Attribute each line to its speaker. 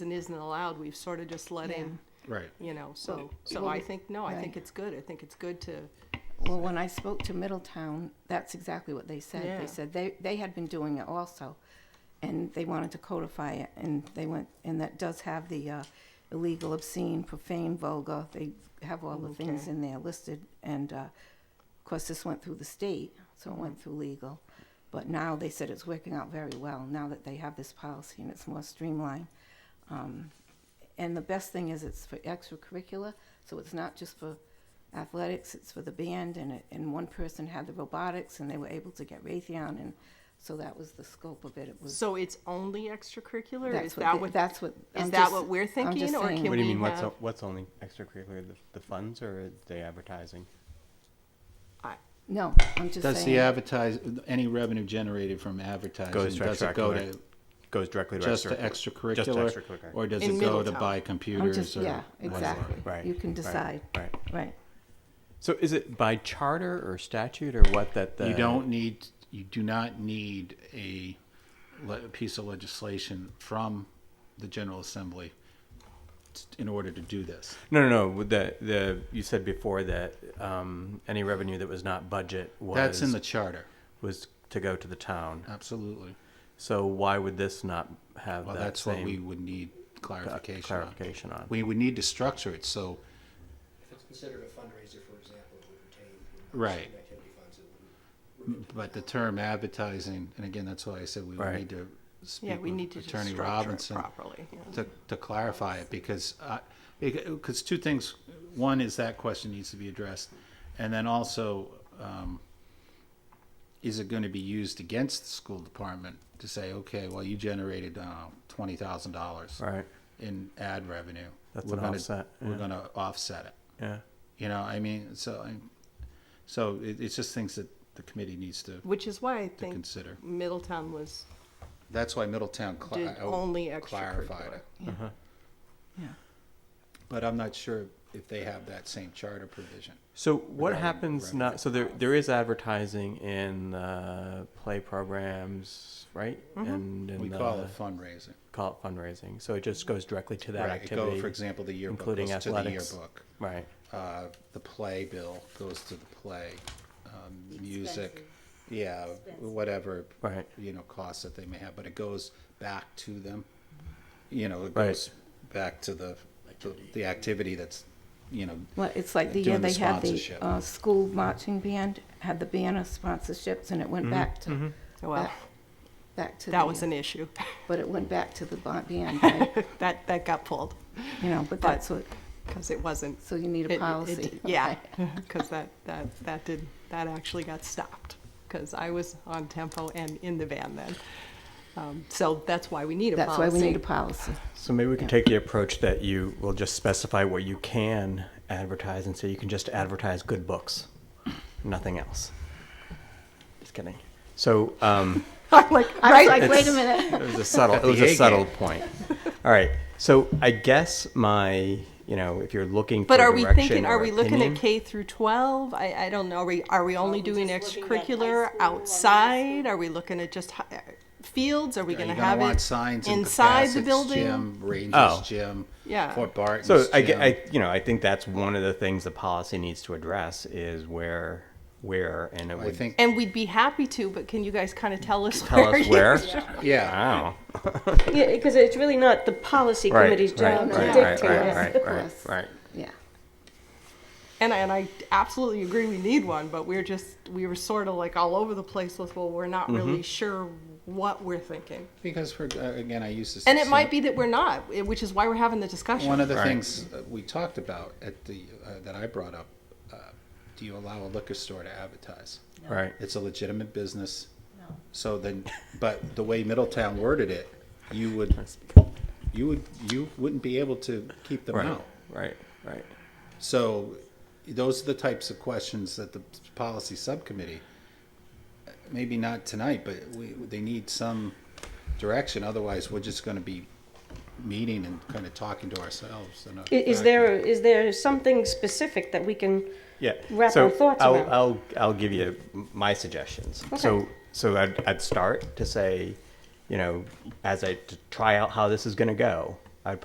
Speaker 1: and isn't allowed, we've sort of just let in,
Speaker 2: Right.
Speaker 1: you know, so, so
Speaker 3: well,
Speaker 1: I think, no, I think
Speaker 3: right.
Speaker 1: it's good. I think it's good to,
Speaker 3: Well, when I spoke to Middletown, that's exactly what they said.
Speaker 1: Yeah.
Speaker 3: They said they, they had been doing it also, and they wanted to codify it, and they went, and that does have the uh, illegal, obscene, profane, vulgar. They have all the things
Speaker 1: Oh, Okay.
Speaker 3: in there listed, and uh, of course, this went through the state, so it went through legal. But now they said it's working out very well now that they have this policy and it's more streamlined. And the best thing is it's for extracurricular, so it's not just for athletics, it's for the band, and, it, and one person had the robotics, and they were able to get Raytheon, and so that was the scope of it. It was.
Speaker 1: so it's only extracurricular?
Speaker 3: that's
Speaker 1: Is
Speaker 3: what
Speaker 1: that
Speaker 3: the-
Speaker 1: what,
Speaker 3: That's what.
Speaker 1: is
Speaker 3: I'm
Speaker 1: that
Speaker 3: just-
Speaker 1: what we're
Speaker 3: I'm just
Speaker 1: thinking, or
Speaker 3: saying.
Speaker 1: can
Speaker 2: What do you
Speaker 1: we
Speaker 2: mean, what's,
Speaker 1: have-
Speaker 2: o- what's only extracurricular, the, the funds or the advertising?
Speaker 1: I-
Speaker 3: No, I'm just
Speaker 4: Does the
Speaker 3: saying.
Speaker 4: advertise, any revenue generated from advertising,
Speaker 2: Goes to
Speaker 4: does it go
Speaker 2: extracurricular.
Speaker 4: to,
Speaker 2: Goes directly to
Speaker 4: just to
Speaker 2: extracurricular? Just to
Speaker 4: extracurricular?
Speaker 2: extracurricular.
Speaker 4: Or does
Speaker 1: In
Speaker 4: it go to
Speaker 1: Middletown.
Speaker 4: buy
Speaker 3: I'm
Speaker 4: computers or?
Speaker 3: just, yeah,
Speaker 4: whatever?
Speaker 3: exactly.
Speaker 2: Right,
Speaker 3: You can
Speaker 2: right,
Speaker 3: decide.
Speaker 2: Right.
Speaker 3: Right.
Speaker 2: So is it by charter or statute or what that the?
Speaker 4: You don't need, you do not need a le- piece of legislation from the General Assembly t- in order to do this.
Speaker 2: No, no, no. with The, the, you said before that, um, any revenue that was not budget was.
Speaker 4: That's in the charter,
Speaker 2: Was to go to the town.
Speaker 4: absolutely.
Speaker 2: So why would this not have
Speaker 4: Well,
Speaker 2: that
Speaker 4: that's what we
Speaker 2: same
Speaker 4: would need clarification on.
Speaker 2: clarification on?
Speaker 4: We would need to structure it, so,
Speaker 5: If it's considered a fundraiser, for example, it would retain. you know,
Speaker 4: Right.
Speaker 5: certain Activity funds, it wouldn't.
Speaker 4: But the term advertising, and again, that's why I said we would
Speaker 2: Right.
Speaker 4: need to
Speaker 1: Yeah,
Speaker 4: speak
Speaker 1: we need
Speaker 4: with
Speaker 1: to just
Speaker 4: Attorney
Speaker 1: structure it
Speaker 4: Robinson
Speaker 1: properly. yeah.
Speaker 4: to, to clarify it, because, because two things. One is that question needs to be addressed, and then also, um, is it going to be used against the school department to say, okay, well, you generated, uh, twenty thousand dollars
Speaker 2: Right.
Speaker 4: in ad revenue.
Speaker 2: That's
Speaker 4: We're
Speaker 2: an
Speaker 4: gonna-
Speaker 2: offset,
Speaker 4: We're
Speaker 2: yeah.
Speaker 4: gonna offset it.
Speaker 2: Yeah.
Speaker 4: You know, I mean, so, I- so it, it's just things that the committee needs to
Speaker 1: Which is why I think
Speaker 4: consider.
Speaker 1: Middletown was,
Speaker 4: That's why Middletown cli-
Speaker 1: did
Speaker 4: uh,
Speaker 1: only
Speaker 4: clarified
Speaker 1: extracurricular.
Speaker 4: it.
Speaker 3: Yeah.
Speaker 4: But I'm not sure if they have that same charter provision.
Speaker 2: So what
Speaker 4: Regarding
Speaker 2: happens
Speaker 4: revenue.
Speaker 2: not? So there there is advertising in uh, play programs, right? And uh, in
Speaker 4: We
Speaker 2: the,
Speaker 4: call it fundraising.
Speaker 2: call it fundraising. So it just goes directly to that
Speaker 4: Right, it
Speaker 2: activity.
Speaker 4: go, for example, the yearbook
Speaker 2: including
Speaker 4: goes to the
Speaker 2: athletics.
Speaker 4: yearbook.
Speaker 2: Right.
Speaker 4: Uh, The play bill goes to the play, um, music,
Speaker 6: expenses.
Speaker 4: yeah, whatever,
Speaker 2: Right.
Speaker 4: you know, costs that they may have, but it goes back to them. You know, it
Speaker 2: Right.
Speaker 4: goes back to the, the- the activity that's, you know,
Speaker 3: Well, it's like the year
Speaker 4: Doing the
Speaker 3: they had the
Speaker 4: sponsorship.
Speaker 3: uh, school marching band had the banner sponsorships, and it
Speaker 4: Mm-hmm,
Speaker 3: went back to
Speaker 1: Well,
Speaker 3: back- back to
Speaker 1: that
Speaker 3: the-
Speaker 1: was an issue.
Speaker 3: But it went back to the ba- band, right?
Speaker 1: That, that got pulled,
Speaker 3: you know. But that's what.
Speaker 1: because it wasn't.
Speaker 3: So you need
Speaker 1: it-
Speaker 3: a
Speaker 1: it-
Speaker 3: policy.
Speaker 1: Yeah, because that, that, that did, that actually got stopped, because I was on tempo and in the van then. Um, So that's why we need a policy.
Speaker 3: That's why we need a policy.
Speaker 2: So maybe we can
Speaker 3: Yeah.
Speaker 2: take the approach that you will just specify what you can advertise, and so you can just advertise good books, nothing else. Just kidding. So. Um,
Speaker 1: I'm like,
Speaker 3: I was
Speaker 1: right,
Speaker 3: like, wait a
Speaker 2: It's-
Speaker 3: minute.
Speaker 2: It was a subtle. It was
Speaker 4: the
Speaker 2: a
Speaker 4: A
Speaker 2: subtle point. All right. So I guess my, you know, if you're looking
Speaker 1: But
Speaker 2: for
Speaker 1: are we
Speaker 2: direction
Speaker 1: thinking, are
Speaker 2: or
Speaker 1: we looking
Speaker 2: opinion-
Speaker 1: at K through 12? I, I don't know, are we, are we only
Speaker 6: Are we
Speaker 1: doing
Speaker 6: just looking at high
Speaker 1: extracurricular
Speaker 6: school or middle
Speaker 1: outside?
Speaker 6: school?
Speaker 1: Are we looking at just hi- fields? Are we
Speaker 4: Are you
Speaker 1: gonna
Speaker 4: gonna
Speaker 1: have
Speaker 4: want
Speaker 1: it
Speaker 4: signs in
Speaker 1: inside the
Speaker 4: Capasic's
Speaker 1: building?
Speaker 4: Gym, Rangers
Speaker 2: Oh.
Speaker 4: gym,
Speaker 1: Yeah.
Speaker 4: Fort Barton's
Speaker 2: So I, ge-
Speaker 4: gym.
Speaker 2: I, you know, I think that's one of the things the policy needs to address is where, where, and it
Speaker 4: I
Speaker 2: would
Speaker 4: think,
Speaker 1: And we'd be happy to, but can you guys kind of tell us
Speaker 2: tell
Speaker 1: where?
Speaker 2: us
Speaker 1: you-
Speaker 2: where.
Speaker 4: yeah,
Speaker 2: Wow.
Speaker 6: Yeah, because it's really not the policy
Speaker 2: Right.
Speaker 6: committee's
Speaker 2: right.
Speaker 6: job to
Speaker 2: Right. Right.
Speaker 6: dictate.
Speaker 2: Right. Right.
Speaker 3: Of
Speaker 2: Right.
Speaker 3: course.
Speaker 2: Right.
Speaker 3: Yeah.
Speaker 1: And, I- and I absolutely agree we need one, but we're just, we were sort of like all over the place with, well, we're not
Speaker 4: Mm-hmm.
Speaker 1: really sure what we're thinking.
Speaker 4: because we're, uh, again, I use this.
Speaker 1: And it might
Speaker 4: example.
Speaker 1: be that we're not, eh, which is why we're having the discussion.
Speaker 4: One of the
Speaker 2: Right.
Speaker 4: things uh, we talked about at the, uh, that I brought up, uh, do you allow a liquor store to advertise?
Speaker 2: Right.
Speaker 4: It's a legitimate business. So then, but the way Middletown worded it, you would, you would, you wouldn't be able to keep them
Speaker 2: Right.
Speaker 4: out.
Speaker 2: Right. Right.
Speaker 4: So those are the types of questions that the policy subcommittee, maybe not tonight, but we, they need some direction. Otherwise, we're just going to be meeting and kind of talking to ourselves. uh, in a
Speaker 6: I- Is there, is there something specific that we can?
Speaker 2: yeah.
Speaker 6: wrap
Speaker 2: so
Speaker 6: our thoughts
Speaker 2: I'll,
Speaker 6: around.
Speaker 2: I'll I'll give you my suggestions. So so I'd, I'd start to say, you know, as I to try out how this is going to go,